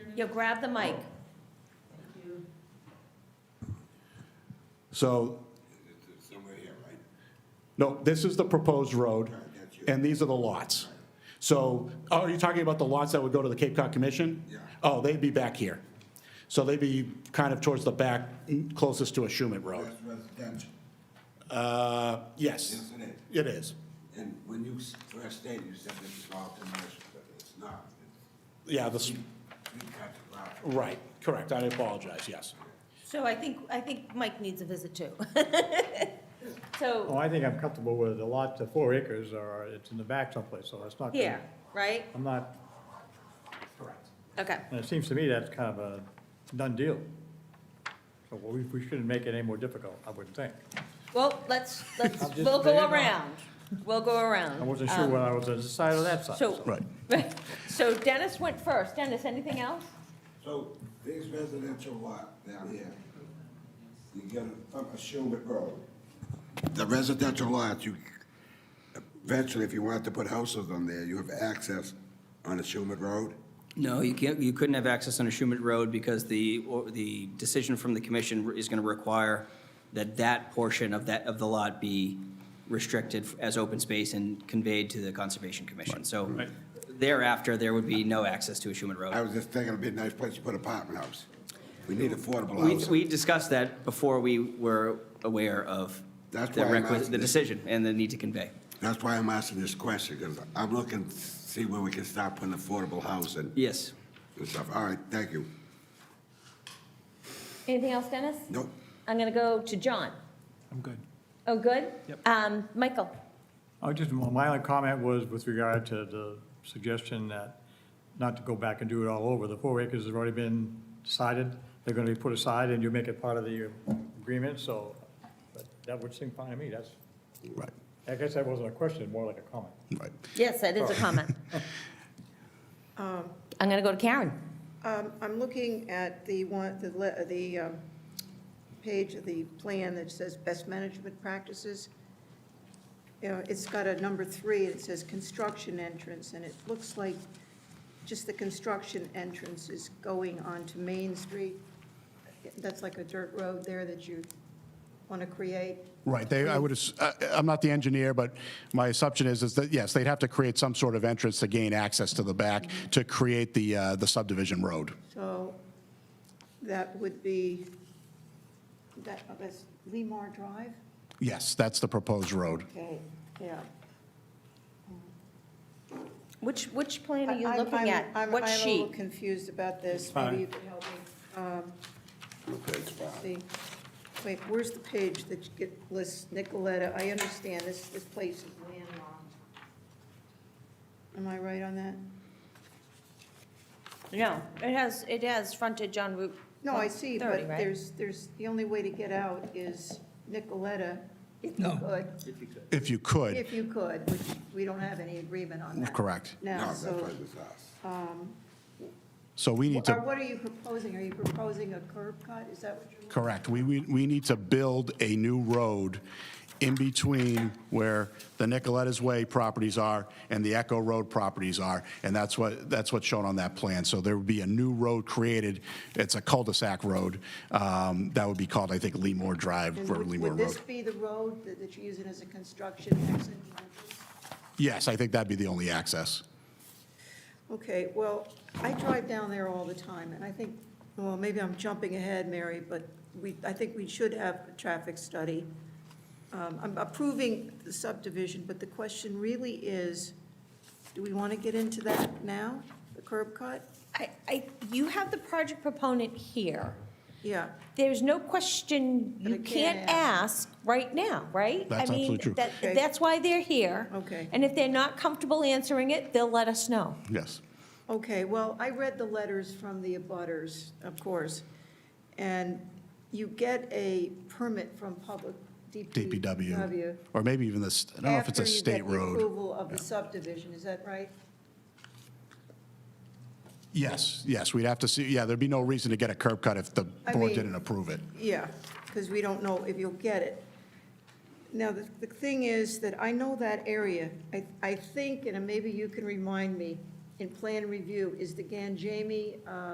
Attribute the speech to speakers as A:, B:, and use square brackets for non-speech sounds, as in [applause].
A: Yo, grab the mic.
B: So. No, this is the proposed road, and these are the lots. So, oh, are you talking about the lots that would go to the Cape Cod Commission? Yeah. Oh, they'd be back here. So they'd be kind of towards the back, closest to a Schumett Road.
C: That's residential,
B: Uh, yes,
C: isn't it?
B: it is.
C: And when you s- first stated, you said this is all commercial, but it's not.
B: Yeah, this,
C: We cut the lot.
B: right, correct, I apologize, yes.
A: So I think, I think Mike needs a visit too. [laughs]
D: Oh,
A: So,
D: I think I'm comfortable with the lot, the four acres, or it's in the back someplace, so it's not. gonna-
A: here, right?
D: I'm not,
A: Okay,
D: and it seems to me that's kind of a done deal. So we, we shouldn't make it any more difficult, I wouldn't think.
A: well, let's, let's,
D: I'm just
A: we'll go
D: bringing it up.
A: around. We'll go around.
D: I wasn't sure
A: Um,
D: when I was on the side or that side.
A: So.
D: so.
A: [laughs] So Dennis went first. Dennis, anything else?
C: So this residential lot down here, you get a, from a Schubert Road. The residential lots, you, eventually, if you wanted to put houses on there, you have access on a Schubert Road.
E: No, you can't, you couldn't have access on a Schumett Road because the, or the decision from the commission is going to require that that portion of that, of the lot be restricted as open space and conveyed to the Conservation Commission. So thereafter, there would be no access to a Schumett
C: I
E: Road.
C: was just thinking it'd be a nice place to put apartment house. We need affordable
E: We,
C: housing.
E: we discussed that before we were aware of
C: That's
E: the
C: why I'm
E: requisite,
C: asking
E: the
C: this.
E: decision and the need to convey.
C: That's why I'm asking this question, because I'm looking to see where we can start putting affordable housing
E: Yes.
C: and stuff. All right, thank you.
A: Anything else, Dennis?
C: Nope.
A: I'm gonna go to John.
D: I'm good.
A: Oh, good? Yep. Um, Michael?
D: I just, my only comment was with regard to the suggestion that not to go back and do it all over. The four acres has already been decided, they're gonna be put aside, and you make it part of the agreement, so but that would seem fine to me, that's,
B: Right,
D: I guess that wasn't a question, more like a comment.
B: right.
A: Yes, that is a comment. I'm gonna go to Karen.
F: Um, I'm looking at the one, the, le- the um, page of the plan that says best management practices. You know, it's got a number three, and it says construction entrance, and it looks like just the construction entrance is going onto Main Street. That's like a dirt road there that you want to create.
G: Right, they, I would, ass- I- I'm not the engineer, but my assumption is, is that, yes, they'd have to create some sort of entrance to gain access to the back to create the, uh, the subdivision road.
F: So that would be, that, oh, that's Lemar Drive?
G: Yes, that's the proposed road.
F: Okay, yeah.
A: Which, which plan are you
F: I'm-
A: looking
F: I'm-
A: at?
F: I'm-
A: What
F: I'm a little
A: sheet?
F: confused about this.
D: fine.
F: Maybe you could help me. Um, let's see. Wait, where's the page that you get, lists Nicoletta? I understand this, this place is landlocked. Am I right on that?
A: No, it has, it has frontage on Route.
F: No, I see,
A: 30,
F: but
A: right?
F: there's, there's, the only way to get out is Nicoletta, if you could,
G: If you could,
F: if you could, which we don't have any agreement on that.
G: correct.
C: No,
F: Now,
C: that's
F: so,
C: why this house.
G: So we need to,
F: or what are you proposing? Are you proposing a curb cut? Is that what you're?
G: correct, we, we, we need to build a new road in between where the Nicoletta's Way properties are and the Echo Road properties are, and that's what, that's what's shown on that plan. So there would be a new road created, it's a cul-de-sac road, um, that would be called, I think, Leamore Drive
F: And
G: or
F: would-
G: Leamore
F: Would
G: Road.
F: this be the road that that you're using as a construction exit? and entrance?
G: Yes, I think that'd be the only access.
F: Okay, well, I drive down there all the time, and I think, well, maybe I'm jumping ahead, Mary, but we, I think we should have a traffic study. Um, I'm approving the subdivision, but the question really is, do we want to get into that now, the curb cut?
A: I, I, you have the project proponent here.
F: Yeah,
A: There's no question
F: But
A: you
F: I can't
A: can't ask right now, right?
G: That's
A: I mean,
G: absolutely true.
A: that-
F: Okay.
A: That's why they're here.
F: Okay.
A: And if they're not comfortable answering it, they'll let us know.
G: Yes.
F: okay, well, I read the letters from the abutters, of course, and you get a permit from public
G: DPW, or maybe even this, I don't know if it's a state
F: After you get the
G: road.
F: approval of the subdivision, is that right?
G: Yes, yes, we'd have to see, yeah, there'd be no reason to get a curb cut if the
F: I
G: board
F: mean-
G: didn't approve it.
F: Yeah, because we don't know if you'll get it. Now, the, the thing is that I know that area. I, I think, and maybe you can remind me, in plan review, is the Ganjami, uh